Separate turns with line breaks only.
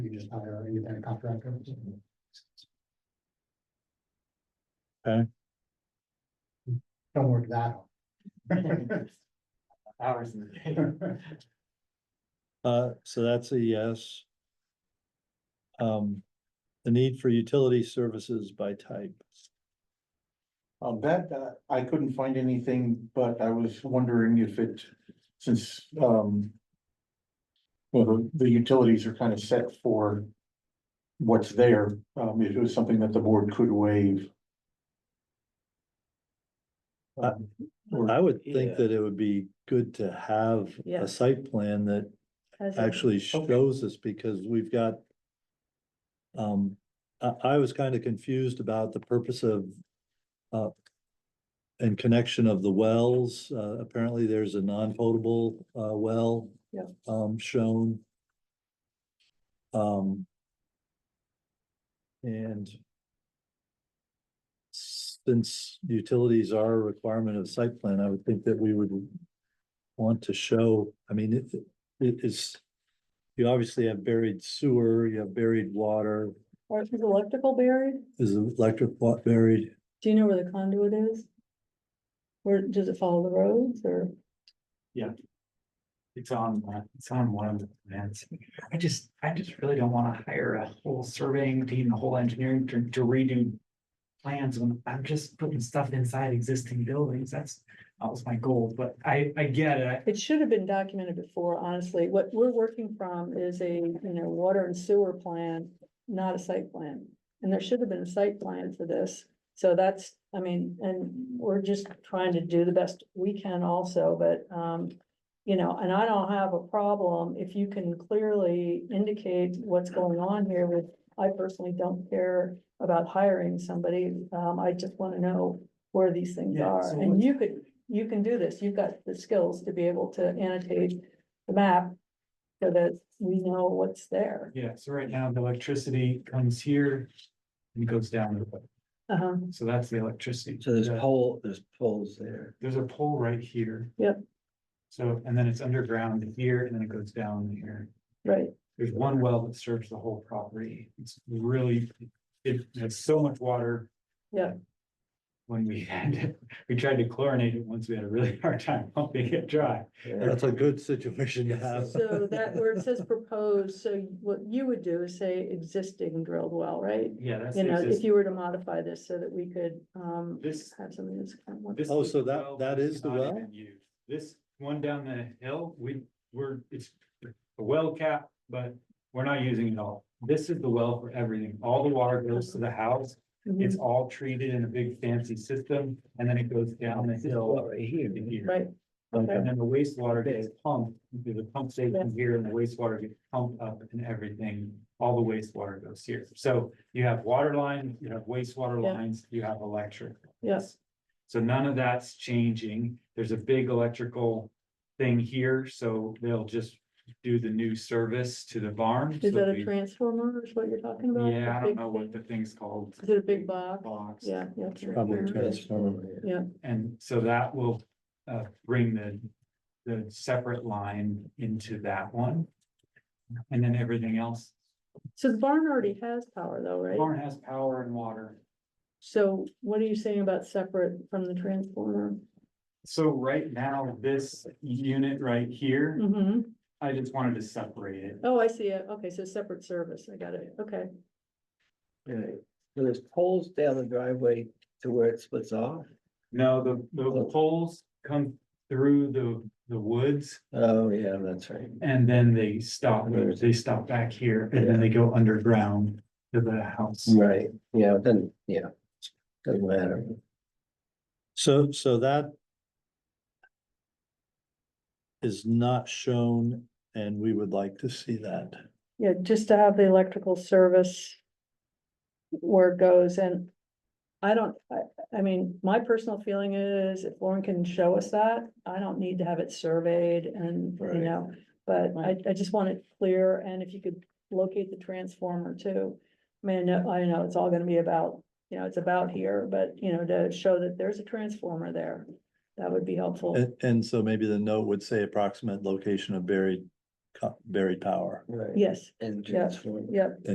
just hire an independent contractor.
Okay.
Don't work that hard.
Hours in the day.
Uh, so that's a yes. Um, the need for utility services by type.
Uh, that, uh, I couldn't find anything, but I was wondering if it, since, um. Well, the- the utilities are kind of set for. What's there, um, if it was something that the board could waive. Um, or-
I would think that it would be good to have
Yeah.
a site plan that
Has a-
actually shows us because we've got. Um, I, I was kind of confused about the purpose of, uh. And connection of the wells, uh, apparently there's a non-potable, uh, well.
Yeah.
Um, shown. Um. And. Since utilities are a requirement of site plan, I would think that we would. Want to show, I mean, it, it is, you obviously have buried sewer, you have buried water,
Or is electrical buried?
is electric wa- buried?
Do you know where the conduit is? Where, does it follow the roads or?
It's on, uh, it's on one of the plans. I just, I just really don't wanna hire a whole surveying team, a whole engineering to to redo. Plans when I'm just putting stuff inside existing buildings. That's, that was my goal, but I, I get it. I-
It should have been documented before, honestly. What we're working from is a, you know, water and sewer plan, not a site plan. And there should have been a site plan for this. So that's, I mean, and we're just trying to do the best we can also, but, um, you know, and I don't have a problem if you can clearly indicate what's going on here with, I personally don't care about hiring somebody. Um, I just want to know where these things
Yeah,
are.
so
And
what's-
you could you can do this, you've got the skills to be able to annotate the map so that we know what's there.
Yeah, so right now the electricity comes here and goes down. the road.
Uh-huh,
So that's the electricity.
So there's
The-
pole, there's poles there.
There's a pole right here.
Yep.
So, and then it's underground here and then it goes down here.
right,
There's one well that serves the whole property. It's really, it has so much water.
Yeah.
When we had, it, we tried to chlorinate it once, we had a really hard time pumping it dry.
That's a good situation to have.
so that where it says proposed, so what you would do is say existing drilled well, right?
Yeah, that's.
You know, if
exist-
you were to modify this so that we could, um,
This,
have something that's kind of.
this.
Oh, so that-
well
that is the
not
well?
even used. This one down the hill, we, we're, it's a well cap, but we're not using it all. This is the well for everything. All the water goes to the house.
Mhm,
It's all treated in a big fancy system and then it goes down the hill.
Right here.
to here.
Mhm. Right,
And then the wastewater gets pumped, into the pump station here and the wastewater gets pumped up and everything, all the wastewater goes here. So you have water lines, you have wastewater
Yeah.
lines, you have electric.
Yes.
So none of that's changing. There's a big electrical thing here, so they'll just do the new service to the barn.
is
So
that a
we-
transformer is what you're talking about?
Yeah, I
The big
don't know what the
thing?
thing's called.
Is it a big box?
Box.
Yeah, yeah.
Probably
transformer.
transformer.
And so that will uh bring the, the separate line into that one. And then everything else,
So the barn already has power though, right?
barn has power and water.
So what are you saying about separate from the transformer?
So right now, this unit right here,
Mm-hmm.
I just wanted to separate it.
Oh, I see it. Okay, so separate service. I got it. Okay.
Right. So there's poles down the driveway to where it splits off.
No, the, the poles come through the, the woods
Oh, yeah, that's right.
and then they stop, they stop back here and then they go underground to the house.
Right, yeah, then, yeah. Doesn't matter.
So, so that is not shown and we would like to see that.
Yeah, just to have the electrical service where it goes and I don't, I, I mean, my personal feeling is if Lauren can show us that, I don't need to have it surveyed and, you
Right.
know, but I, I just want it clear and if you could locate the transformer too. I mean, I know, I know it's all gonna be about, you know, it's about here, but you know, to show that there's a transformer there, that would be helpful.
And, and so maybe the note would say approximate location of buried
co- buried power.
Right.
yes,
And
Yeah.
transform.
yep.